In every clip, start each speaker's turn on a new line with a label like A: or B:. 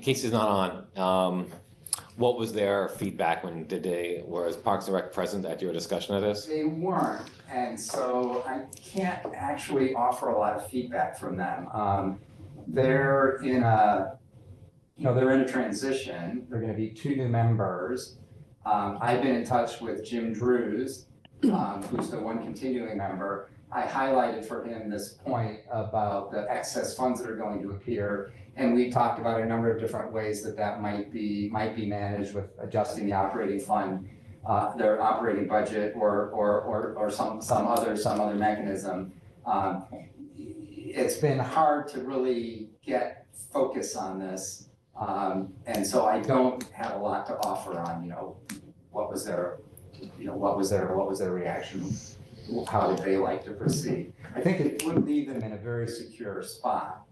A: Casey's not on. Um, what was their feedback when did they, was Parks and Rec present at your discussion of this?
B: They weren't, and so I can't actually offer a lot of feedback from them. Um, they're in a, you know, they're in a transition. They're gonna be two new members. Um, I've been in touch with Jim Drews, um, who's the one continuing member. I highlighted for him this point about the excess funds that are going to appear. And we talked about a number of different ways that that might be, might be managed with adjusting the operating fund uh, their operating budget or, or, or, or some, some other, some other mechanism. Um, It's been hard to really get focus on this. Um, and so I don't have a lot to offer on, you know, what was their, you know, what was their, what was their reaction? How would they like to proceed? I think it would leave them in a very secure spot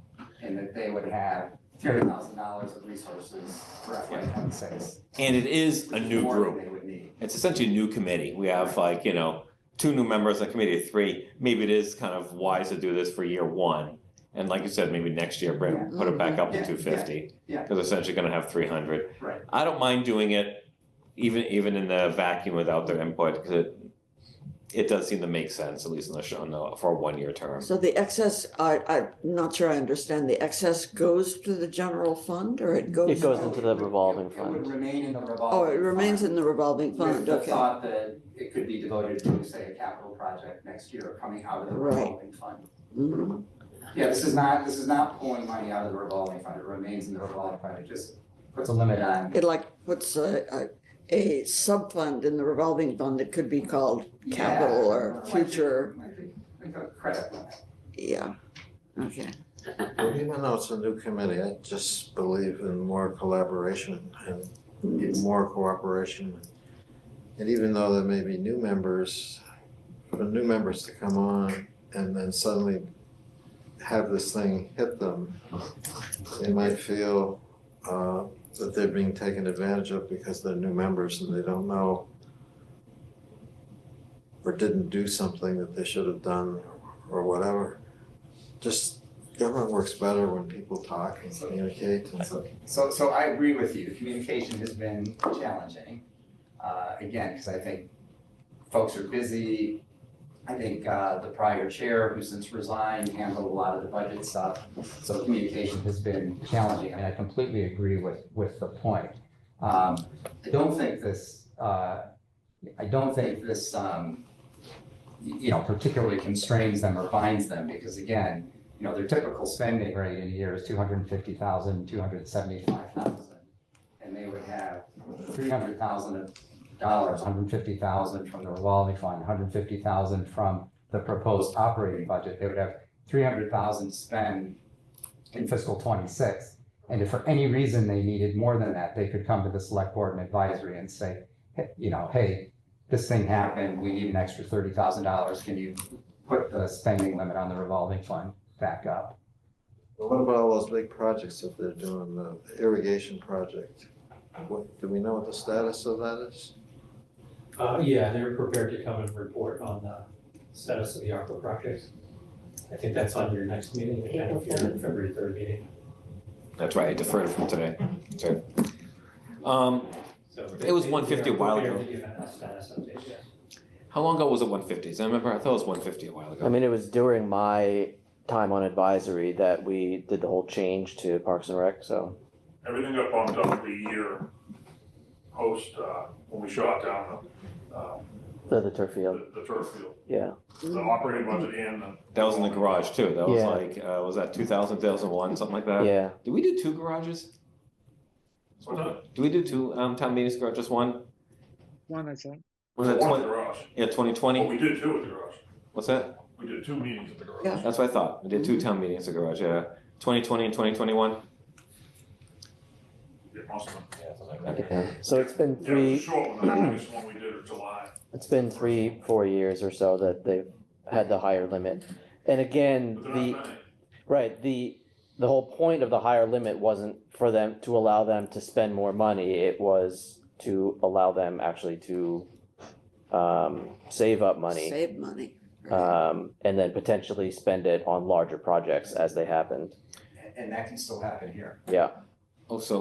B: in that they would have thirty thousand dollars of resources for FY twenty-six.
A: And it is a new
B: more than
A: group.
B: They would need.
A: It's essentially a new committee. We have like, you know, two new members, a committee of three. Maybe it is kind of wise to do this for year one. And like you said, maybe next year, bring, put it back up to
B: Yeah, yeah,
A: two fifty.
B: yeah.
A: Because essentially gonna have three hundred.
B: Right.
A: I don't mind doing it, even, even in the vacuum without their input, because it, it does seem to make sense, at least in the show, no, for a one-year term.
C: So the excess, I, I'm not sure I understand, the excess goes to the general fund or it goes?
D: It goes into the revolving
B: It would
D: fund.
B: remain in the revolving.
C: Oh, it remains
B: fund
C: in the revolving
B: With
C: fund,
B: the
C: okay.
B: thought that it could be devoted to, say, a capital project next year coming out of the
C: Right.
B: revolving fund.
C: Mhm.
B: Yeah, this is not, this is not pulling money out of the revolving fund. It remains in the revolving fund. It just puts a limit on.
C: It like puts a, a, a sub-fund in the revolving fund that could be called capital
B: Yeah,
C: or
B: like a-
C: future,
B: like a- Like a credit limit.
C: yeah, okay.
E: Well, Even though it's a new committee, I just believe in more collaboration and more cooperation. And even though there may be new members, for new members to come on and then suddenly have this thing hit them, they might feel uh, that they're being taken advantage of because they're new members and they don't know or didn't do something that they should have done or whatever. Just Government works better when people talk and communicate and
B: So, so, so I agree with you, communication has been challenging. Uh, again, because I think folks are busy. I think, uh, the prior chair, who since resigned, handled a lot of the budget stuff, so communication has been challenging, and I completely agree with, with the point. Um, I don't think this, uh, I don't think this, um, y- you know, particularly constrains them or binds them, because again, you know, their typical spending rate in a year is two hundred and fifty thousand, two hundred and seventy-five thousand. And they would have three hundred thousand dollars, hundred fifty thousand from the revolving fund, hundred fifty thousand from the proposed operating budget. They would have three hundred thousand spend in fiscal twenty-six. And if for any reason they needed more than that, they could come to the select board and advisory and say, hey, you know, hey, this thing happened, we need an extra thirty thousand dollars. Can you put the spending limit on the revolving fund back up.
E: Well, What about all those big projects that they're doing, the irrigation project? What, do we know what the status of that is?
F: Uh, yeah, they're prepared to come and report on the status of the ARPA project. I think that's on your next meeting, I don't know if you're in February third meeting,
A: That's right, I deferred from today. Sorry. Um,
F: so.
A: It was 150 a while ago.
F: They're prepared to give a status update, yeah.
A: how long ago was it one fifties? I remember, I thought it was one fifty a while
D: I
A: ago.
D: mean, it was during my time on advisory that we did the whole change to Parks and Rec, so.
G: Everything got bumped up the year post, uh, when we shot down the, uh,
D: The, the turf field,
G: the the turf field.
D: yeah.
G: The operating budget and the.
A: That was in the garage too. That was
D: Yeah.
A: like, uh, was that 2000, 2001, something like that?
D: Yeah,
A: Did we do two garages?
G: What's that?
A: Did we do two, um, town meetings garage, just one?
H: One, I think.
A: Was that
G: One
A: twenty,
G: garage.
A: yeah, twenty
G: Well,
A: twenty?
G: we did two at the garage.
A: What's that?
G: We did two meetings at the garage.
C: Yeah.
A: That's what I thought. We did two town meetings at garage, yeah. Twenty twenty and twenty twenty one?
G: Yeah, most of them.
A: Yeah, something like that.
D: so it's been
G: Yeah, it was a
D: three,
G: short one, the longest one we did in July.
D: it's been three, four years or so that they've had the higher limit. And again,
G: But
D: the.
G: they're not many.
D: Right, the, the whole point of the higher limit wasn't for them, to allow them to spend more money, it was to allow them actually to um, save up money,
C: Save money. right.
D: um, and then potentially spend it on larger projects as they happened.
B: And- And that can still happen here.
D: Yeah.
A: Oh, so